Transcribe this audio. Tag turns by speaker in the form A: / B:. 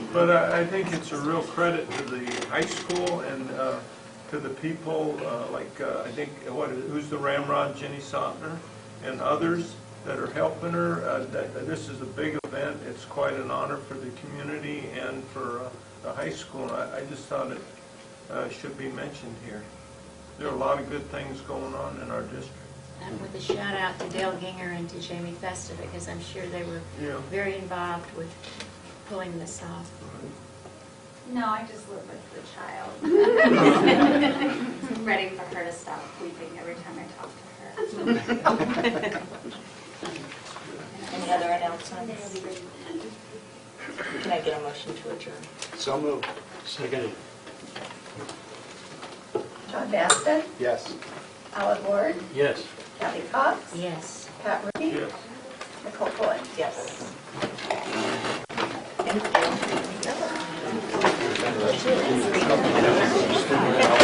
A: But I, I think it's a real credit to the high school and uh, to the people, uh, like, uh, I think, what, who's the Ramrod, Jenny Sotner, and others that are helping her. Uh, that- that This is a big event, it's quite an honor for the community and for uh, the high school, and I, I just thought it uh, should be mentioned here. There are a lot of good things going on in our district.
B: And with a shout out to Dale Ginger and to Jamie Festa, because I'm sure they were
A: Yeah.
B: very involved with pulling this off.
C: No, I just live with the child. Ready for her to stop weeping every time I talk to her.
D: Any other announcements? Can I get a motion to adjourn?
E: So moved.
F: Second.
G: John Baston,
E: Yes.
G: Alan Ward,
F: Yes.
G: Kathy Cox,
B: Yes.
G: Pat Rudy,
A: Yes.
G: Nicole Boyd.
D: Yes.
G: Thank you.